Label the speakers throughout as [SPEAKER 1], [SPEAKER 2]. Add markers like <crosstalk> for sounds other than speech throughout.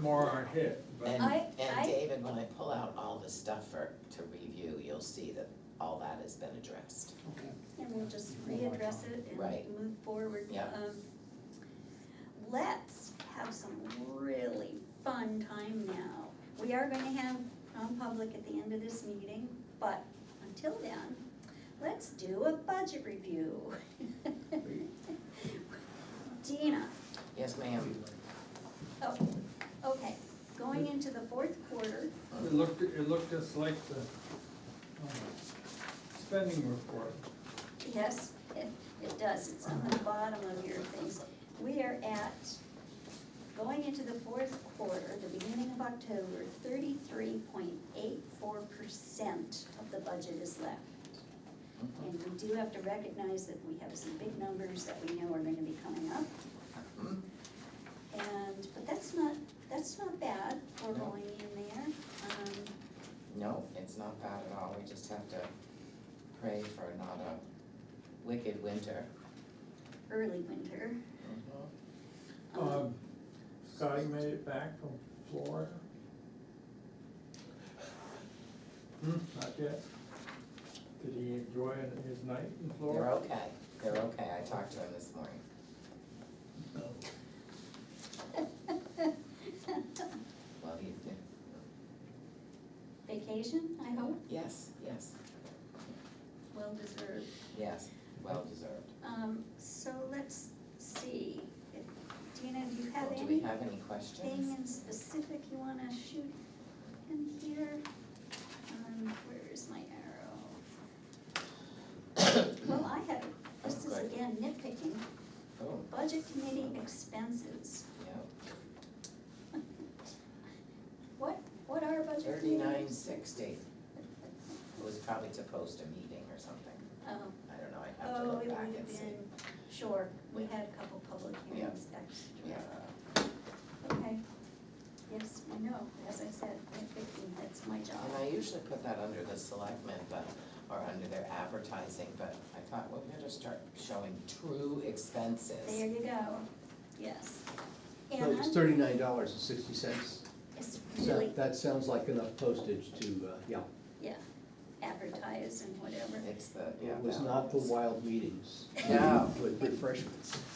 [SPEAKER 1] more aren't hit, but,
[SPEAKER 2] And,
[SPEAKER 3] I-
[SPEAKER 2] and
[SPEAKER 3] I-
[SPEAKER 2] David, when I pull out all the stuff for, to review, you'll see that all that has been addressed.
[SPEAKER 4] Okay.
[SPEAKER 3] And we'll just readdress it
[SPEAKER 2] Right.
[SPEAKER 3] and move forward.
[SPEAKER 2] Yeah.
[SPEAKER 3] Um, Let's have some really fun time now. We are gonna have non-public at the end of this meeting, but until then, let's do a budget review. <laughs> Dina,
[SPEAKER 2] Yes, ma'am.
[SPEAKER 3] oh, okay, going into the fourth quarter,
[SPEAKER 1] it looked, it looked just like the, um, spending report.
[SPEAKER 3] Yes, it, it does, it's on the bottom of your things. We are at, going into the fourth quarter, the beginning of October, thirty-three point eight four percent of the budget is left.
[SPEAKER 2] Mhm.
[SPEAKER 3] And we do have to recognize that we have some big numbers that we know are gonna be coming up.
[SPEAKER 2] Mhm.
[SPEAKER 3] And, but that's not, that's not bad for
[SPEAKER 2] No.
[SPEAKER 3] going in there. Um,
[SPEAKER 2] No, it's not bad at all, we just have to pray for not a wicked winter.
[SPEAKER 3] early winter.
[SPEAKER 2] Mhm.
[SPEAKER 3] um,
[SPEAKER 1] Um, Scotty made it back from Florida? Hmm, not yet. Did he enjoy his night in
[SPEAKER 2] They're
[SPEAKER 1] Florida?
[SPEAKER 2] okay, they're okay, I talked to him this morning. Well, he did.
[SPEAKER 3] Vacation, I hope,
[SPEAKER 2] Yes, yes,
[SPEAKER 3] well deserved.
[SPEAKER 2] yes, well deserved.
[SPEAKER 3] Um, so let's see, If- Dina, do you
[SPEAKER 2] Oh,
[SPEAKER 3] have
[SPEAKER 2] Do we
[SPEAKER 3] anything
[SPEAKER 2] have any questions?
[SPEAKER 3] in specific you wanna shoot in here? Um, where is my arrow? Well, I have, this is
[SPEAKER 2] Okay.
[SPEAKER 3] again nitpicking,
[SPEAKER 2] Oh,
[SPEAKER 3] budget committee expenses, <laughs>
[SPEAKER 2] yeah,
[SPEAKER 3] what, what are budget committee?
[SPEAKER 2] thirty-nine
[SPEAKER 3] <laughs>
[SPEAKER 2] sixty. It was probably to post a meeting or something,
[SPEAKER 3] Oh,
[SPEAKER 2] I don't know, I'd have to
[SPEAKER 3] oh, it
[SPEAKER 2] look
[SPEAKER 3] would
[SPEAKER 2] back
[SPEAKER 3] have
[SPEAKER 2] and see.
[SPEAKER 3] been, sure, we
[SPEAKER 2] Yeah.
[SPEAKER 3] had a couple public
[SPEAKER 2] Yeah.
[SPEAKER 3] hearings extra.
[SPEAKER 2] Yeah,
[SPEAKER 3] Okay, yes, I know, as I said, nitpicking, that's my job.
[SPEAKER 2] and I usually put that under the selectmen, but, or under their advertising, but I thought, well, we better start showing true
[SPEAKER 3] There
[SPEAKER 2] expenses.
[SPEAKER 3] you go, yes.
[SPEAKER 4] Well,
[SPEAKER 3] And
[SPEAKER 4] It's
[SPEAKER 3] I'm-
[SPEAKER 4] thirty-nine dollars and sixty cents.
[SPEAKER 3] it's
[SPEAKER 4] So
[SPEAKER 3] really,
[SPEAKER 4] that sounds like enough postage to, uh, yeah.
[SPEAKER 3] yeah, advertise and whatever.
[SPEAKER 2] It's the, yeah.
[SPEAKER 4] It was
[SPEAKER 2] that
[SPEAKER 4] not the
[SPEAKER 2] one.
[SPEAKER 4] wild meetings.
[SPEAKER 2] No.
[SPEAKER 4] With refreshments.
[SPEAKER 3] <laughs>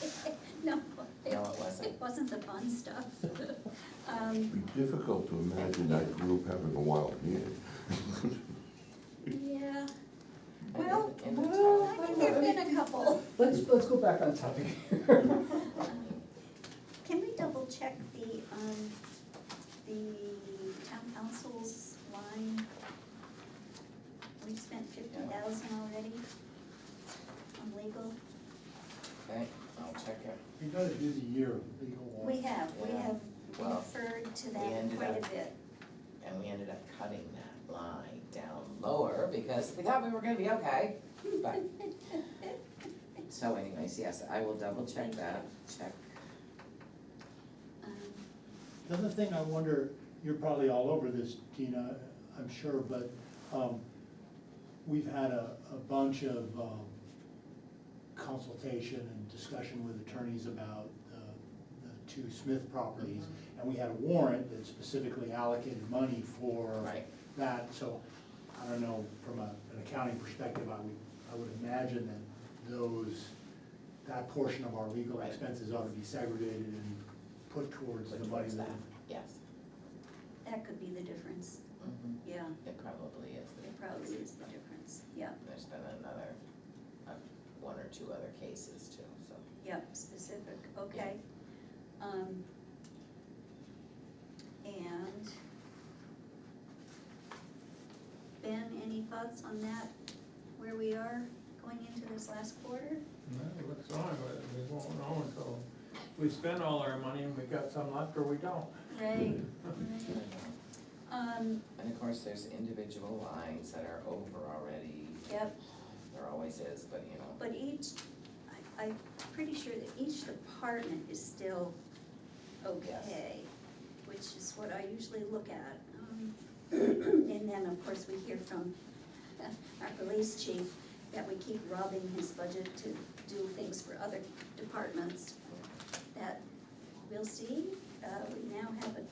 [SPEAKER 3] No, it,
[SPEAKER 2] No, it wasn't.
[SPEAKER 3] it wasn't the fun stuff. <laughs> Um,
[SPEAKER 5] It'd be difficult to imagine that group having a wild meeting. <laughs>
[SPEAKER 3] yeah,
[SPEAKER 2] And in-
[SPEAKER 3] well,
[SPEAKER 2] in the
[SPEAKER 3] I
[SPEAKER 2] town.
[SPEAKER 3] think there've been a couple.
[SPEAKER 4] Let's, let's go back on topic <laughs> here.
[SPEAKER 3] Can we double check the, um, the town council's line? We spent fifty thousand already on legal.
[SPEAKER 2] Okay, I'll check it.
[SPEAKER 6] You gotta do the year, legal one.
[SPEAKER 3] We have, we
[SPEAKER 2] Yeah.
[SPEAKER 3] have
[SPEAKER 2] Well,
[SPEAKER 3] referred to
[SPEAKER 2] we
[SPEAKER 3] that
[SPEAKER 2] ended
[SPEAKER 3] quite a
[SPEAKER 2] up-
[SPEAKER 3] bit.
[SPEAKER 2] And we ended up cutting that line down lower because we thought we were gonna be okay,
[SPEAKER 3] <laughs>
[SPEAKER 2] but. So anyways, yes, I will double check that, check.
[SPEAKER 3] Um,
[SPEAKER 6] The other thing I wonder, you're probably all over this, Dina, I'm sure, but, um, we've had a, a bunch of, um, consultation and discussion with attorneys about the, the two Smith properties.
[SPEAKER 2] Mm-hmm.
[SPEAKER 6] And we had a warrant that specifically allocated money for
[SPEAKER 2] Right.
[SPEAKER 6] that, so, I don't know, from a, an accounting perspective, I would, I would imagine that those, that portion of our legal
[SPEAKER 2] Right.
[SPEAKER 6] expenses ought to be segregated and put towards the
[SPEAKER 2] Which
[SPEAKER 6] money
[SPEAKER 2] was
[SPEAKER 6] that.
[SPEAKER 2] that? Yes.
[SPEAKER 3] That could be the difference,
[SPEAKER 2] Mhm.
[SPEAKER 3] yeah,
[SPEAKER 2] It probably is.
[SPEAKER 3] it probably is the difference, yep,
[SPEAKER 2] There's been another, uh, one or two other cases too, so.
[SPEAKER 3] yep, specific, okay. Um, And Ben, any thoughts on that, where we are going into this last quarter?
[SPEAKER 1] No, it looks on, but we won't know until we spend all our money and we got some left or we don't.
[SPEAKER 3] Right,
[SPEAKER 2] I
[SPEAKER 3] right.
[SPEAKER 2] don't know.
[SPEAKER 3] Um,
[SPEAKER 2] And of course, there's individual lines that are over already.
[SPEAKER 3] yep,
[SPEAKER 2] There always is, but you know,
[SPEAKER 3] But each, I, I'm pretty sure that each department is still okay, which is what I usually look at. Um, <clears throat> And then, of course, we hear from <laughs> our police chief that we keep robbing his budget to do things for other departments. That, we'll see, uh, we now have a